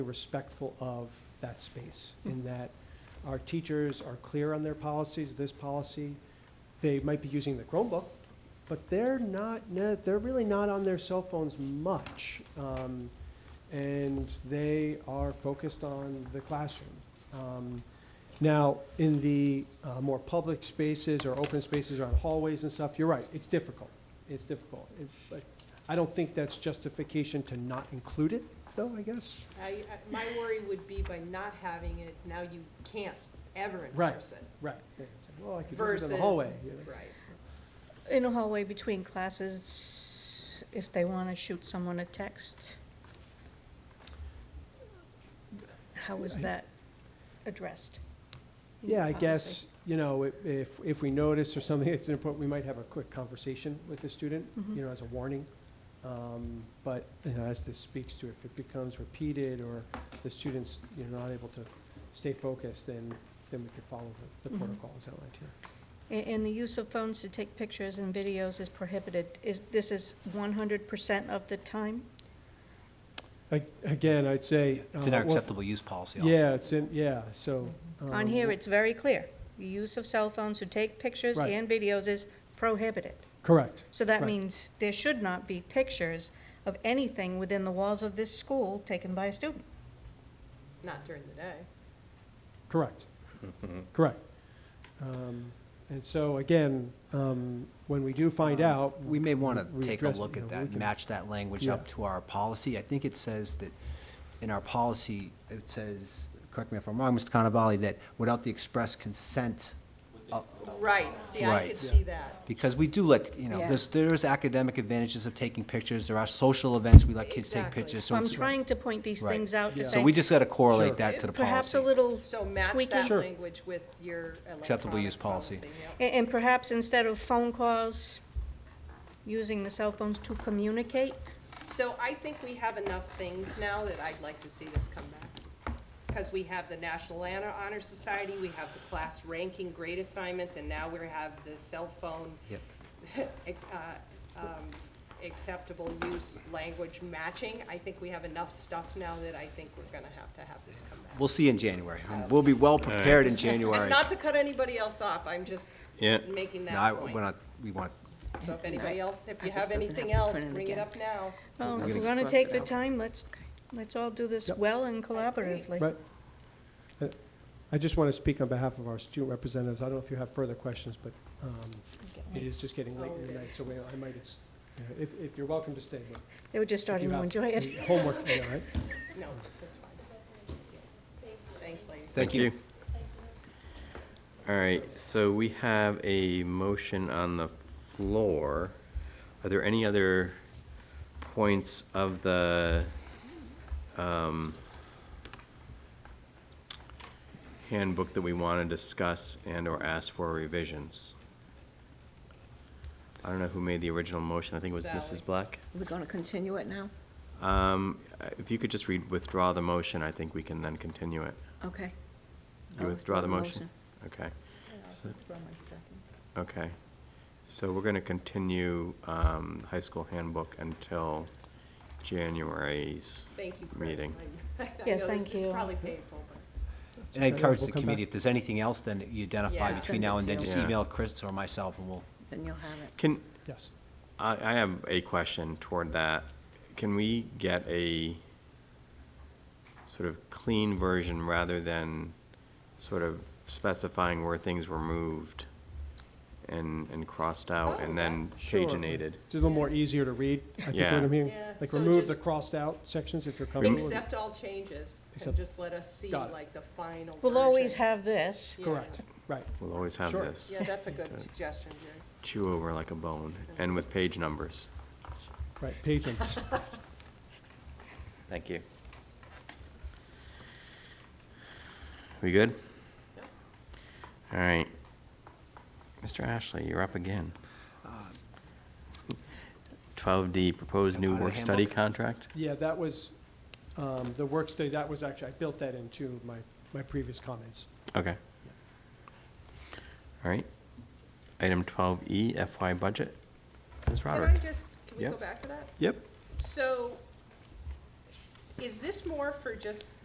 respectful of that space, in that our teachers are clear on their policies, this policy, they might be using the Chromebook, but they're not, ne- they're really not on their cell phones much. um, And they are focused on the classroom. Um, Now, in the uh, more public spaces or open spaces or on hallways and stuff, you're right, it's difficult. It's difficult. It's, like- I don't think that's justification to not include it, though, I guess. I, I- my worry would be by not having it, now you can't ever Right. enforce it. Right. Yeah, it's like, Well, I could use it Versus. in the hallway. you know. Right. In a hallway between classes, if they want to shoot someone a text, how is I- that addressed? in the Yeah, I policy? guess, you know, i- if, if we notice or something that's important, we might have a quick conversation with the student, Mm-hmm. you know, as a warning. Um, But, you know, as this speaks to, if it becomes repeated or the student's, you know, not able to stay focused, then, then we could follow the- the Mhm. protocols outlined here. A- And, the use of phones to take pictures and videos is prohibited. Is, this is one hundred percent of the time? Ag- Again, I'd say. It's in uh, our well, acceptable use policy also. Yeah, it's in, yeah, so. On um, here, it's very clear. The use of cell phones to take pictures Right. and videos is prohibited. Correct. So that Right. means there should not be pictures of anything within the walls of this school taken by a student. Not during the day. Correct. Mm-hmm. Correct. Um, And so, again, um, when we do find out. We may want we to take a address it, look you know, at we that, and can- match that language Yeah. up to our policy. I think it says that, in our policy, it says, correct me if I'm wrong, Mr. Cannavale, that without the express consent, of- Right, see, I could Right. see that. because we do let, you know, Yeah. there's, there's academic advantages of taking pictures, there are social events, we let kids take Exactly. pictures. so So I'm it's- trying to point these Right. things out to Yeah. say. So we just got to Sure. correlate that to the Perhaps a policy. little So match tweaking. that Sure. language with your Acceptable use electronic policy. yep. A- And perhaps instead of phone calls, using the cell phones to communicate. Um, So I think we have enough things now that I'd like to see this come back. Because we have the National Honor Honor Society, we have the class ranking grade assignments, and now we have the cell phone Yep. ac- uh, um, acceptable use language matching. I think we have enough stuff now that I think we're gonna have to have this come back. We'll see in January. We'll be well prepared in January. And not to cut anybody else off, I'm just Yeah. making No, I- that we're point. not, we want, So if anybody else, if you This have doesn't anything have to else, print it bring it again. up now. Well, if gonna we're gonna cross take it the out. time, let's, let's all do this Yep. well and agree. collaboratively. Right. Uh, I just want to speak on behalf of our student representatives. I don't know if you have further questions, but um, it is just getting late in the night, so we- I might, ex- you know, if, if you're welcome to stay. but if They were just you starting to have enjoy it. Homework, all right? No, that's fine. Thanks, ladies. thank you. All right, so we have a motion on the floor. Are there any other points of the um, handbook that we want to discuss and/or ask for revisions? I don't know who made the original motion. I think it was Sally. Mrs. Black. We're going to continue it now? Um, If you could just read, withdraw the motion, I think we can then continue it. Okay. You I'll withdraw the motion? Okay. So- Okay. So we're going to continue um, high school handbook until January's Thank you, Chris. meeting. I- I Yes, know thank This you. is probably painful, but. And I encourage We'll the come committee, back. if there's anything else, then you identify Yeah. between now and then, Send it just to you. Yeah. email Chris or myself, and we'll, Then you'll have it. Can, Yes. I, I have a question toward that. Can we get a sort of clean version rather than sort of specifying where things were moved and, and crossed out and then Oh, Sure. paginated? It's a little more easier to read, I think, Yeah. what I mean. Yeah, Like, so remove the just- crossed out sections if you're comfortable. with it. Accept all changes and Accept- just let us see Got it. like the final We'll always version. have this. Yeah. Correct, right. We'll always have Sure. this. Yeah, that's a good suggestion, Jerry. Chew over like a bone and with page numbers. Right, page numbers. Thank you. We good? All right. Mr. Ashley, you're up again. Twelve D, proposed That new part of the work-study handbook? contract? Yeah, that was, um, the work study, that was actually, I built that into my, my previous comments. Okay. All right. Item twelve E, FY budget. Ms. Can I Roderick? just, can we Yeah. go back to that? Yep. So is this more for just